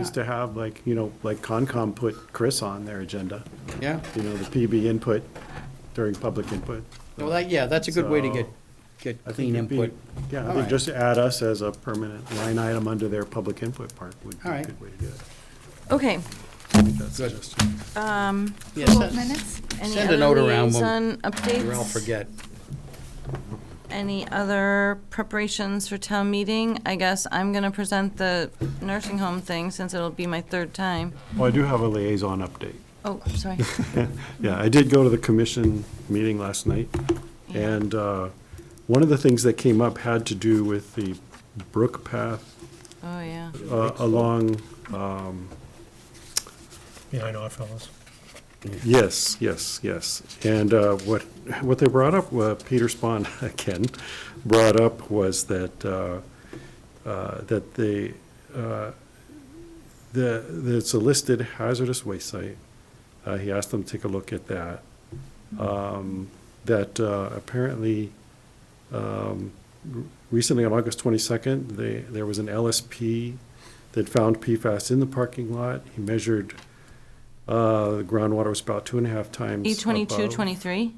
is to have like, you know, like Concom put Chris on their agenda, Yeah, you know, the PB input during public input. well, that, yeah, that's a good way to get, So, get I think clean it'd be- input. Yeah, I All think right. just add us as a permanent line item under their public input part would be All a right. good way to do it. Okay, I think that's Good. just- Yeah, Cool. send- Um, Minutes? any Send a other note around, liaison updates? Or I'll forget. Any other preparations for town meeting? I guess I'm going to present the nursing home thing since it'll be my third time. Well, I do have a liaison update. Oh, I'm sorry. Yeah, I did go to the commission meeting last night, Yeah. and uh, one of the things that came up had to do with the Brook Path Oh, yeah. uh, along, um, behind Oddfellows. yes, yes, yes. And uh, what, what they brought up, uh, Peter Spahn, again, brought up was that, uh, uh, that they, uh, the, that it's a listed hazardous waste site. Uh, He asked them to take a look at that. Um, That uh, apparently, um, recently on August 22nd, they, there was an LSP that found PFAS in the parking lot. He measured, uh, the groundwater was about two and a half times. E twenty-two, above. twenty-three,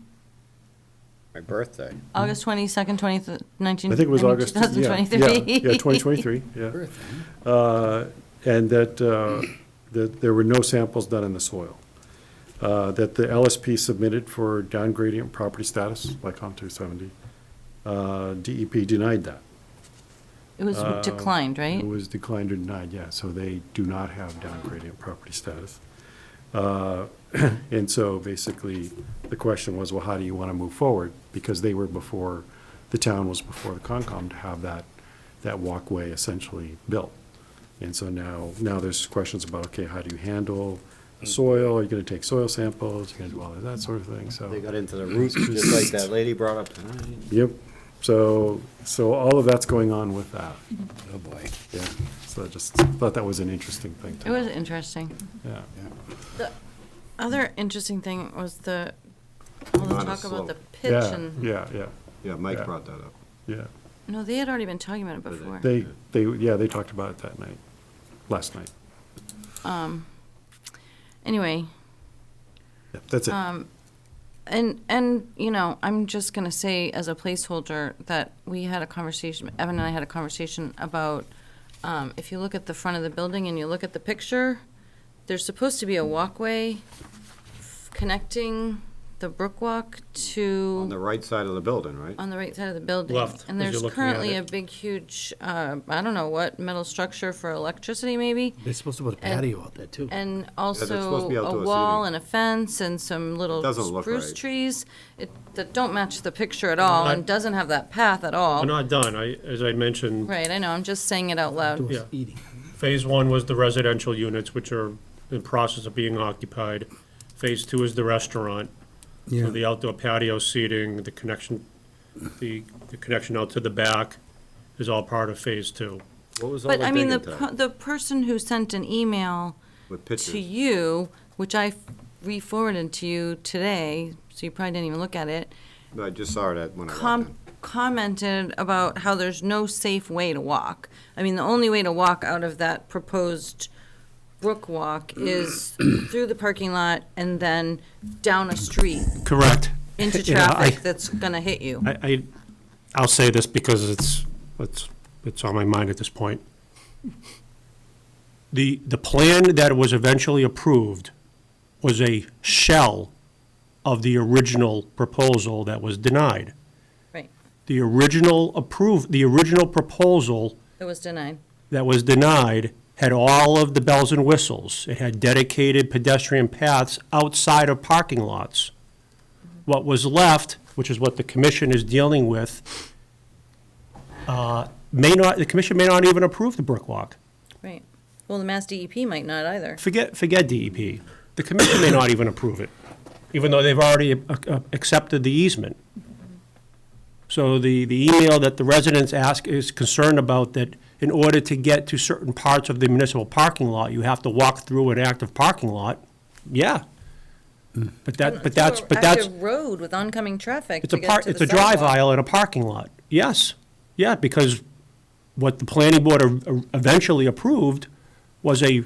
My birthday. August twenty-second, twenty, nineteen. I think it was August. Two thousand yeah, twenty-three. Yeah, yeah, 2023, yeah. Birthday. Uh, And that, uh, that there were no samples done in the soil. Uh, That the LSP submitted for down gradient property status, like on 270. Uh, DEP denied that. It was declined, right? It was declined or denied, yeah, so they do not have down gradient property status. Uh, And so basically, the question was, well, how do you want to move forward? Because they were before, the town was before the Concom to have that, that walkway essentially built. And so now, now there's questions about, okay, how do you handle Mm. the soil? Are you going to take soil samples? Are you going to do all of that sort of thing, so. They got into the roots, just like that lady brought up tonight. Yep, so, so all of that's going on with that. Oh, boy. Yeah, so I just thought that was an interesting thing. to It was interesting. Yeah. Other interesting thing was the, all the Minus talk about slope. the pitch Yeah, and, yeah, yeah, Yeah, Yeah. Mike brought that up. yeah. no, they had already been talking about it Did they? before. They, they, yeah, they talked about it that night, last night. Anyway, Yeah, That's Uh, it. and, and, you know, I'm just gonna say as a placeholder that we had a conversation, Evan and I had a conversation about, um, if you look at the front of the building and you look at the picture, there's supposed to be a walkway f- connecting the Brookwalk to. On the right side of the building, right? On the right side of the building. Left, And as you're there's looking at currently a it. big, huge, uh, I don't know what, metal structure for electricity, maybe? They're supposed to put a And- patio out there, too. And supposed to also be a outdoor wall and seating. a fence and some little Doesn't look spruce right. trees it- that don't match the picture at all and Not- doesn't have that path at all. We're Right, not done, I, as I mentioned, I know, I'm just saying it out loud. Yeah. Doors eating. phase one was the residential units, which are in process of being occupied. Phase two is the restaurant, so the outdoor patio seating, the connection, the, the connection out to the back is all part of phase two. What was all But the I mean, the, digging per- time the person who sent an email with to pictures? you, which I re-forwarded to you today, so you probably didn't even look at it, I just saw that when I walked com- in. commented about how there's no safe way to walk. I mean, the only way to walk out of that proposed brook walk is through the parking lot and then down a street Correct. into You know, I- traffic that's gonna hit you. I, I, I'll say this because it's, it's, it's on my mind at this point. The, the plan that was eventually approved was a shell of the original proposal that was denied. Right, The original approve, the original proposal that was denied. that was denied had all of the bells and whistles. It had dedicated pedestrian paths outside of parking lots. What was left, which is what the commission is dealing with, uh, may not, the commission may not even approve the brick walk. Right. Well, the Mass DEP might not either. Forget, forget DEP. The commission may not even approve it, even though they've already uh, uh, accepted the easement. So the, the email that the residents ask is concerned about that in order to get to certain parts of the municipal parking lot, you have to walk through an active parking lot. Yeah. But that, but that's, but that's, Active road with oncoming traffic it's a to get part, to it's the a drive sidewalk. aisle at a parking lot. Yes. Yeah, because what the planning board eventually approved was a